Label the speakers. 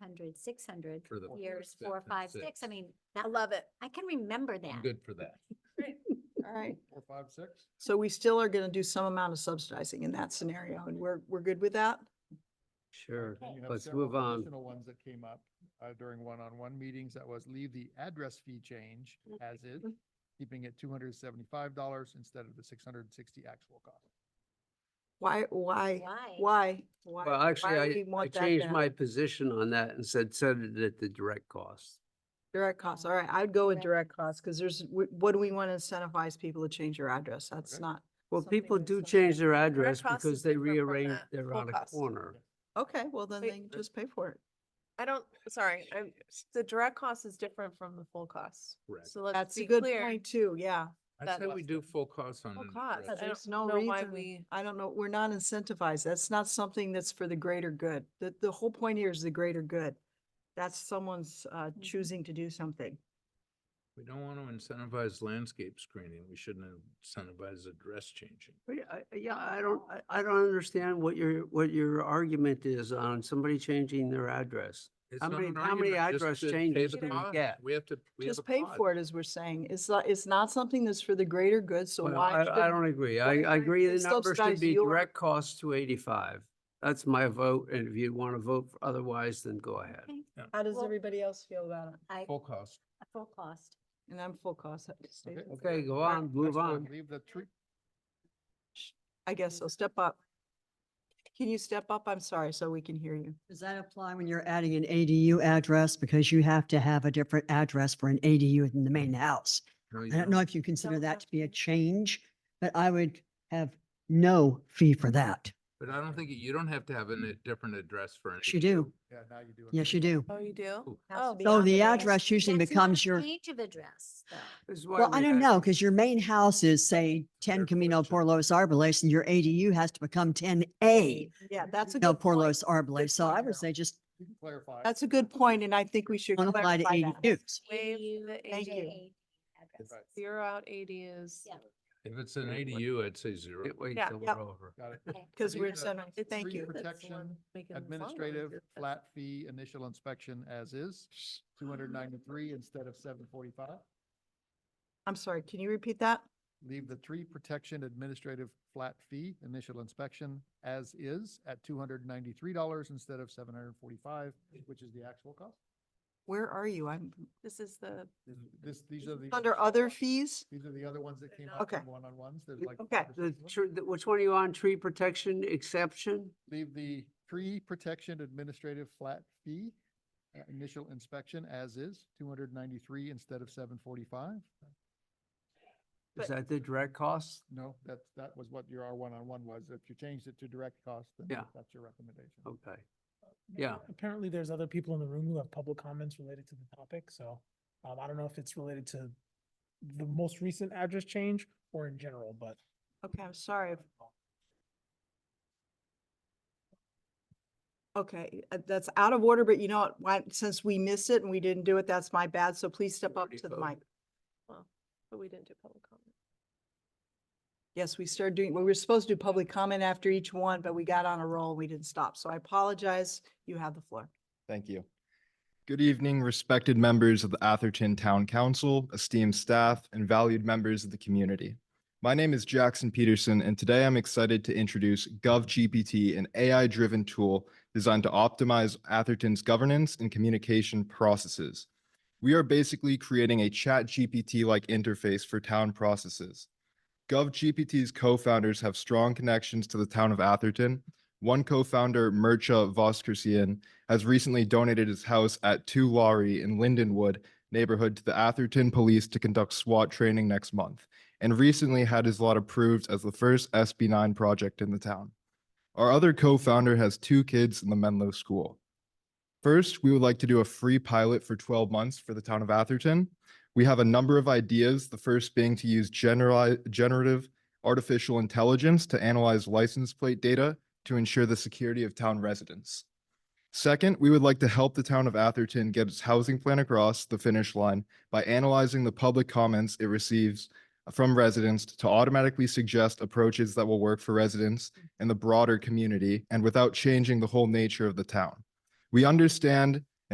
Speaker 1: hundred, six hundred,
Speaker 2: For the four,
Speaker 1: years,
Speaker 2: six,
Speaker 1: four,
Speaker 2: and
Speaker 1: five, six. I
Speaker 2: six.
Speaker 1: mean,
Speaker 3: I
Speaker 1: that,
Speaker 3: love it.
Speaker 1: I can remember
Speaker 2: I'm
Speaker 1: that.
Speaker 2: good for that.
Speaker 3: All right.
Speaker 2: Four, five, six?
Speaker 3: So we still are going to do some amount of subsidizing in that scenario and we're, we're good with that?
Speaker 4: Sure,
Speaker 1: Okay.
Speaker 5: You have
Speaker 4: let's
Speaker 5: several
Speaker 4: move on.
Speaker 5: Additional ones that came up uh, during one-on-one meetings, that was leave the address fee change as is, keeping it two hundred seventy-five dollars instead of the six hundred and sixty actual cost.
Speaker 3: Why,
Speaker 1: Why?
Speaker 3: why, why? why-
Speaker 4: Well, actually,
Speaker 3: why we
Speaker 4: I, I
Speaker 3: want that
Speaker 4: changed
Speaker 3: down?
Speaker 4: my position on that and said, set it at the direct cost.
Speaker 3: Direct costs. All right, I'd go with
Speaker 1: Direct
Speaker 3: direct costs because there's, wh- what do we want to incentivize people to change their address? That's
Speaker 5: Okay.
Speaker 3: not,
Speaker 4: Well,
Speaker 3: Something
Speaker 4: people
Speaker 3: that's
Speaker 4: do
Speaker 3: not-
Speaker 4: change their address
Speaker 6: Direct cost
Speaker 4: because
Speaker 6: is
Speaker 4: they
Speaker 6: different from
Speaker 4: rearrange
Speaker 6: the
Speaker 4: their
Speaker 3: full
Speaker 4: on a
Speaker 3: cost.
Speaker 4: corner.
Speaker 3: okay, well, then
Speaker 6: Wait.
Speaker 3: they just pay for it.
Speaker 6: I don't, sorry, I'm, the direct cost is different from the full cost.
Speaker 4: Correct.
Speaker 6: So let's
Speaker 3: That's a
Speaker 6: be
Speaker 3: good
Speaker 6: clear.
Speaker 3: point too, yeah.
Speaker 2: I
Speaker 6: That-
Speaker 2: say we do full cost on.
Speaker 6: Full
Speaker 2: the
Speaker 6: cost.
Speaker 2: rest.
Speaker 6: I
Speaker 3: There's no
Speaker 6: don't know why
Speaker 3: reason,
Speaker 6: we-
Speaker 3: I don't know, we're not incentivized. That's not something that's for the greater good. The, the whole point here is the greater good. That's someone's, uh,
Speaker 6: Mm-hmm.
Speaker 3: choosing to do something.
Speaker 2: We don't want to incentivize landscape screening. We shouldn't incentivize address changing.
Speaker 4: But yeah, I- Yeah, I don't, I- I don't understand what your, what your argument is on somebody changing their address.
Speaker 2: It's
Speaker 4: How
Speaker 2: not
Speaker 4: many-
Speaker 2: an
Speaker 4: how many
Speaker 2: argument, just
Speaker 4: address
Speaker 2: to pay
Speaker 4: changes
Speaker 2: the
Speaker 4: do we
Speaker 2: cost.
Speaker 4: get?
Speaker 2: We have to. we have
Speaker 3: Just
Speaker 2: a
Speaker 3: pay
Speaker 2: cost.
Speaker 3: for it, as we're saying. It's not, it's not something that's for the greater good, so
Speaker 4: Well,
Speaker 3: why?
Speaker 4: I, I
Speaker 3: should-
Speaker 4: don't agree.
Speaker 3: why
Speaker 4: I, I
Speaker 3: should
Speaker 4: agree
Speaker 3: they
Speaker 4: the number should
Speaker 3: subsidize
Speaker 4: be
Speaker 3: your-
Speaker 4: direct cost two eighty-five. That's my vote, and if you want to vote for otherwise, then go ahead.
Speaker 1: Okay,
Speaker 3: How does
Speaker 1: Well-
Speaker 3: everybody else feel about it?
Speaker 1: I,
Speaker 2: Full cost.
Speaker 1: a full cost.
Speaker 3: And I'm full cost. I just stayed with
Speaker 4: Okay,
Speaker 3: that.
Speaker 4: go
Speaker 5: Right,
Speaker 4: on, move
Speaker 5: next one,
Speaker 4: on.
Speaker 5: Leave the tree,
Speaker 3: I guess so. Step up. Can you step up? I'm sorry, so we can hear you.
Speaker 7: Does that apply when you're adding an ADU address? Because you have to have a different address for an ADU in the main house.
Speaker 2: No, you
Speaker 7: I don't know if you consider
Speaker 1: Don't have
Speaker 7: that to be a
Speaker 1: to.
Speaker 7: change, but I would have no fee for that.
Speaker 2: But I don't think, you don't have to have a n- different address for an.
Speaker 7: Yes, you do.
Speaker 5: yeah, now you do. it.
Speaker 7: Yes, you do.
Speaker 6: Oh, you do?
Speaker 2: Ooh.
Speaker 1: Has to
Speaker 6: Oh,
Speaker 1: be
Speaker 7: So
Speaker 1: on
Speaker 7: the
Speaker 1: list.
Speaker 7: address usually
Speaker 1: That's not
Speaker 7: becomes
Speaker 1: a
Speaker 7: your,
Speaker 1: Change of address, though.
Speaker 4: This is why
Speaker 7: well, I
Speaker 4: we
Speaker 7: don't
Speaker 4: had-
Speaker 7: know, because your main house is, say,
Speaker 2: Fair
Speaker 7: ten Camino
Speaker 2: question.
Speaker 7: Por Los Arboles, and your ADU has to become ten A.
Speaker 3: Yeah, that's a
Speaker 7: No,
Speaker 3: good
Speaker 7: Por
Speaker 3: point.
Speaker 7: Los Arboles. So
Speaker 3: point,
Speaker 7: I would
Speaker 3: Carol.
Speaker 7: say just
Speaker 5: You can Clarify.
Speaker 3: That's a good point, and I think we should
Speaker 7: don't apply
Speaker 3: clarify
Speaker 7: to
Speaker 3: that.
Speaker 7: ADUs.
Speaker 6: Waive
Speaker 1: AU,
Speaker 6: the
Speaker 3: Thank you.
Speaker 1: AJA address.
Speaker 5: Right,
Speaker 6: Zero out ADUs.
Speaker 1: Yeah.
Speaker 2: If it's an
Speaker 4: Yeah, what-
Speaker 2: ADU, I'd say zero.
Speaker 4: Can't wait
Speaker 6: Yeah.
Speaker 4: till
Speaker 3: Yep.
Speaker 4: we're over.
Speaker 5: Got it.
Speaker 1: Okay.
Speaker 3: Because
Speaker 5: Leave
Speaker 3: we're
Speaker 5: the
Speaker 3: incentivized. Thank
Speaker 5: tree
Speaker 3: you.
Speaker 6: That's the one
Speaker 5: Protection,
Speaker 6: making the song
Speaker 5: Administrative
Speaker 6: like that.
Speaker 5: flat fee initial inspection as is, two hundred ninety-three instead of seven forty-five.
Speaker 3: I'm sorry, can you repeat that?
Speaker 5: Leave the tree protection administrative flat fee initial inspection as is at two hundred ninety-three dollars instead of seven hundred and forty-five, which is the actual cost.
Speaker 3: Where are you? I'm
Speaker 6: This is the,
Speaker 5: This- This, these are the.
Speaker 3: under other fees?
Speaker 5: These are the other ones that came up
Speaker 3: Okay.
Speaker 5: in one-on-ones. There's like.
Speaker 3: Okay.
Speaker 5: five or
Speaker 4: The,
Speaker 5: six of them.
Speaker 4: tr- the- which one are you on? Tree protection exception?
Speaker 5: Leave the tree protection administrative flat fee, uh, initial inspection as is, two hundred ninety-three instead of seven forty-five.
Speaker 4: Is
Speaker 3: But-
Speaker 4: that the direct cost?
Speaker 5: No, that's, that was what your R one-on-one was. If you changed it to direct cost, then
Speaker 4: Yeah.
Speaker 5: that's your recommendation.
Speaker 4: Okay. Yeah.
Speaker 8: Apparently, there's other people in the room who have public comments related to the topic, so, um, I don't know if it's related to the most recent address change or in general, but
Speaker 3: Okay, I'm sorry. if- Okay, uh, that's out of order, but you know what, why, since we missed it and we didn't do it, that's my bad, so please step up
Speaker 4: already
Speaker 3: to the mic.
Speaker 4: voted.
Speaker 6: but we didn't do public comment.
Speaker 3: Yes, we started doing, well, we were supposed to do public comment after each one, but we got on a roll, we didn't stop, so I apologize, you have the floor.
Speaker 9: Thank you. Good evening, respected members of the Atherton Town Council, esteemed staff, and valued members of the community. My name is Jackson Peterson, and today I'm excited to introduce GovGPT, an AI-driven tool designed to optimize Atherton's governance and communication processes. We are basically creating a chat GPT-like interface for town processes. GovGPT's co-founders have strong connections to the town of Atherton. One co-founder, Mircha Voskersian, has recently donated his house at Two Laurie in Lindenwood neighborhood to the Atherton Police to conduct SWAT training next month, and recently had his lot approved as the first SB9 project in the town. Our other co-founder has two kids in the Menlo School. First, we would like to do a free pilot for 12 months for the town of Atherton. We have a number of ideas, the first being to use generali- generative artificial intelligence to analyze license plate data to ensure the security of town residents. Second, we would like to help the town of Atherton get its housing plan across the finish line by analyzing the public comments it receives from residents to automatically suggest approaches that will work for residents and the broader community and without changing the whole nature of the town. We understand